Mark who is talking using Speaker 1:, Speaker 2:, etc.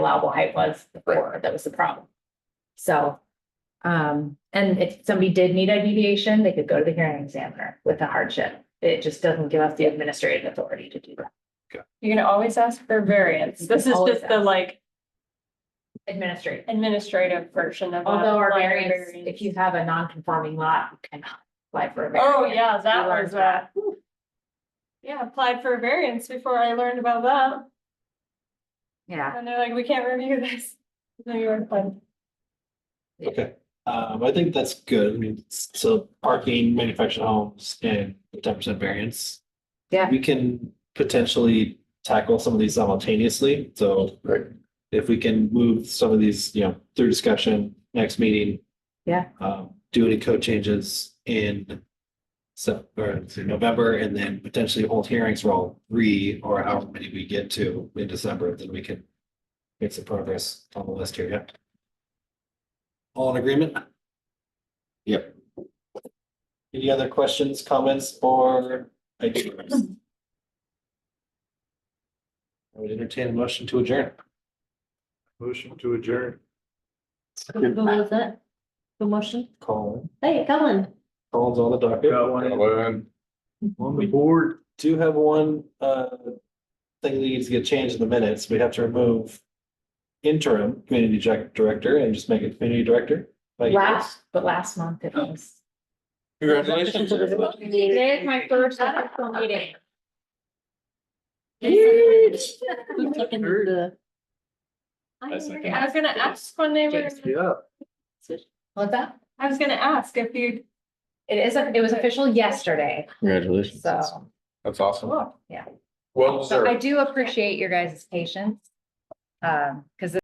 Speaker 1: allowable height was before, that was the problem. So, um, and if somebody did need a deviation, they could go to the hearing examiner with a hardship. It just doesn't give us the administrative authority to do that.
Speaker 2: You can always ask for variance. This is
Speaker 1: Always
Speaker 2: just the
Speaker 1: ask.
Speaker 2: like
Speaker 1: Administrative,
Speaker 2: administrative version of. a
Speaker 1: although our
Speaker 2: minor
Speaker 1: variance, if you have a non-conforming lot, you cannot apply for a variance.
Speaker 2: Oh, yeah, that
Speaker 1: We learned
Speaker 2: was that. Yeah, applied for a variance before I learned about that.
Speaker 1: Yeah,
Speaker 2: And they're like, we can't review this. No, you were fun.
Speaker 3: Okay, um, I think that's good. I mean, so parking, manufactured homes and ten percent variance.
Speaker 1: Yeah.
Speaker 3: We can potentially tackle some of these simultaneously, so. If we can move some of these, you know, through discussion, next meeting.
Speaker 1: Yeah.
Speaker 3: Um, do any code changes in. So, or in November and then potentially hold hearings for all three or however many we get to in December, then we can. Make some progress on the list here, yeah. All in agreement? Yep. Any other questions, comments, or ideas? I would entertain a motion to adjourn.
Speaker 4: Motion to adjourn.
Speaker 5: Who was it? The motion?
Speaker 3: Colin,
Speaker 5: Hey, Colin.
Speaker 3: Colin's on the docket.
Speaker 4: Got one on the board.
Speaker 3: Do have one, uh, thing that needs to get changed in the minutes. We have to remove interim community direct- director and just make it community director. Like-
Speaker 1: last, but last month it was.
Speaker 6: Congratulations. everyone.
Speaker 1: Today is my first official meeting.
Speaker 5: Who's taking the?
Speaker 2: I
Speaker 6: That's
Speaker 2: agree.
Speaker 6: like-
Speaker 2: I was gonna ask when they were,
Speaker 4: Yeah.
Speaker 1: What's that?
Speaker 2: I was gonna ask if you,
Speaker 1: It is, it was official yesterday,
Speaker 6: Congratulations.
Speaker 1: so,
Speaker 6: That's awesome.
Speaker 1: yeah.
Speaker 6: Well
Speaker 1: So I
Speaker 6: deserved.
Speaker 1: do appreciate your guys' patience. Um, because